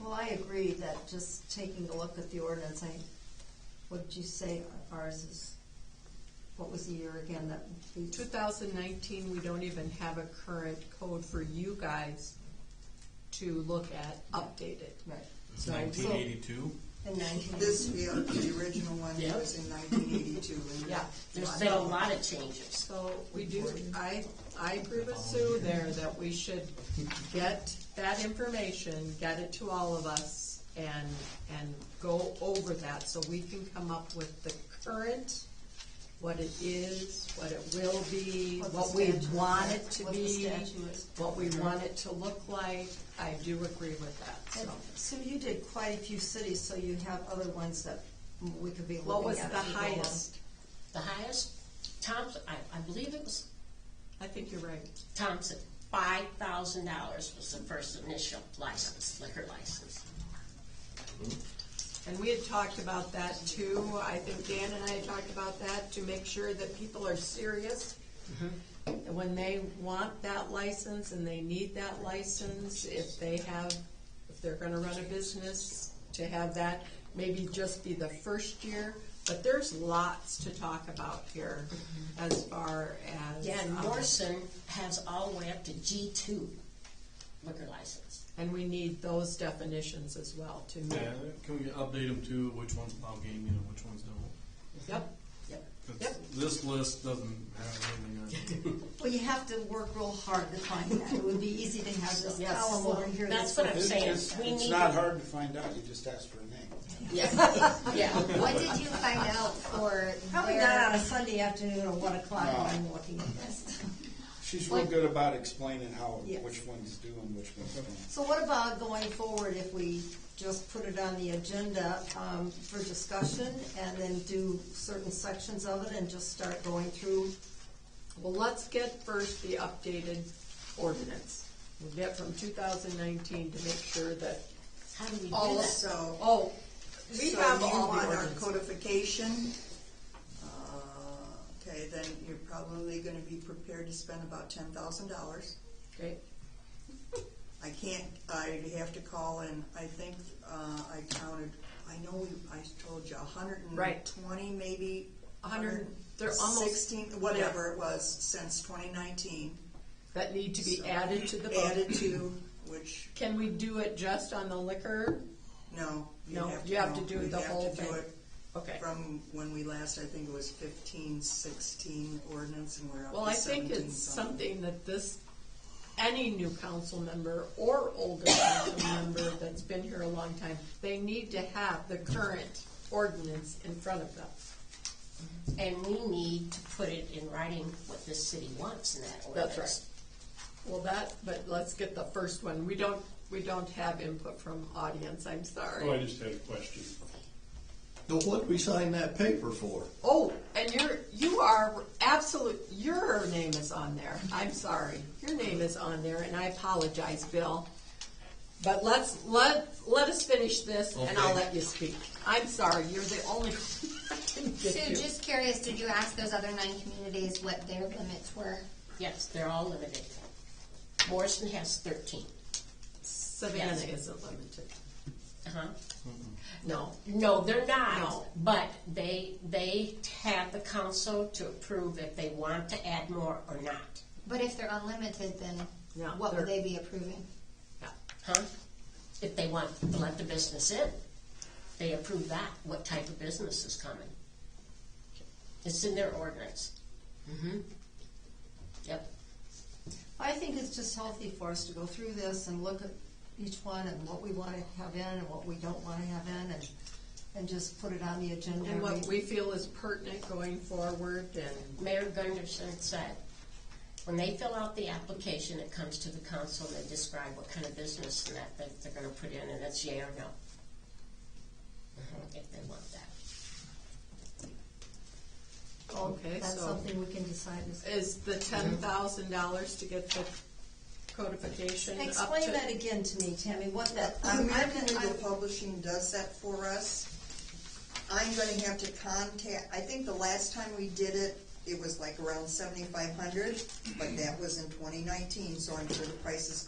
Well, I agree that just taking a look at the ordinance, I, what did you say ours is, what was the year again that? we- 2019, we don't even have a current code for you guys to look at updated. Right. It's So- nineteen eighty-two? so In nineteen This, eighty. yeah, the original one Yeah. was in nineteen eighty-two. Yeah. There's been a lot of changes. So we do, I, I agree with Sue there that we should get that information, get it to all of us and, and go over that so we can come up with the current, what it is, what it will be, What the what we statute- want it to what the be, statute is. what we want it to look like. I do agree with that, And so. So you did quite a few cities, so you have other ones that we could be looking at. What was if the we go along. highest? The highest, Thompson, I, I believe it was I think you're right. Thompson, five thousand dollars was the first initial license, liquor license. And we had talked about that too, I think Dan and I had talked about that, to make sure that people are serious. Mm-hmm. And When they want that license and they need that license, if they have, if they're gonna run a business, to have that, maybe just be the first year. But there's lots to talk about here as far as. Mm-hmm. Yeah, and um, Morrison has all the way up to G two liquor license. And we need those definitions as well to meet. Yeah, can we update them to which one's Palmgame, you know, which one's don't? Yep, Yep. 'Cause Yep. This list doesn't have anything on it. Well, you have to work real hard to find that. It would be easy to have this Yes. column over here. That's this what I'm one. saying, It's, we it's need. not to- hard to find out, you just ask for a name. Yeah, yeah. What did you find out for Probably where- not on a Sunday afternoon at one o'clock No. when I'm looking at this. She's real good about explaining how, Yes. which ones do and which ones don't. So what about going forward if we just put it on the agenda um, for discussion and then do certain sections of it and just start going through? Well, let's get first the updated ordinance. We'll get from two thousand nineteen to make sure that, How do we do that? Also, oh, we so have you all the want our ordinance. codification, uh, okay, then you're probably gonna be prepared to spend about ten thousand dollars. Okay, I can't, I have to call in, I think, uh, I counted, I know we, I told you, a hundred Right. and twenty, maybe. A hundred- they're almost- Sixteen, whatever it was, since twenty nineteen, that need to be added to the added book. to, which, Can we do it just on the liquor? no. you'd No, you have to no, do you'd the have to whole do thing. it Okay, From when we last, I think it was fifteen, sixteen ordinance, and we're up well, to I think seventeen it's something. something that this, any new council member or older council member that's been here a long time, they need to have the current ordinance in front of them. And we need to put it in writing what this city wants in that ordinance. That's right. Well, that, but let's get the first one. We don't, we don't have input from audience, I'm Oh, I sorry. just had a question. Now, what we sign that paper for? Oh, and you're, you are absolute, your name is on there. I'm sorry. Your name is on there, and I apologize, Bill. But let's, let, let us finish this, and I'll Okay. let you speak. I'm sorry, you're the only one that can get Sue, you. just curious, did you ask those other nine communities what their limits were? Yes, they're all limited. Morrison has thirteen. Savannah isn't limited. Uh-huh. No. No, they're not. No. But they, they have the council to approve if they want to add more or not. But if they're unlimited, then No, what would they're- they be approving? Yeah. Huh? If they want to let the business in, they approve that, what type of business is coming. It's in their ordinance. Mm-hmm. Yep. I think it's just healthy for us to go through this and look at each one and what we want to have in and what we don't want to have in and, and just put it on the agenda. And what every- we feel is pertinent going forward, and Mayor Gunderson said, when they fill out the application, it comes to the council, and they describe what kind of business and that, that they're gonna put in, and it's yay or no. If they want that. Okay, That's so- something we can decide is. Is the ten thousand dollars to get the codification up to? Explain that again to me, Tammy, what that, I'm, I'm, American Legal I'm- Publishing does that for us. I'm gonna have to contact, I think the last time we did it, it was like around seventy-five hundred, but that was in twenty nineteen, so I'm sure the price is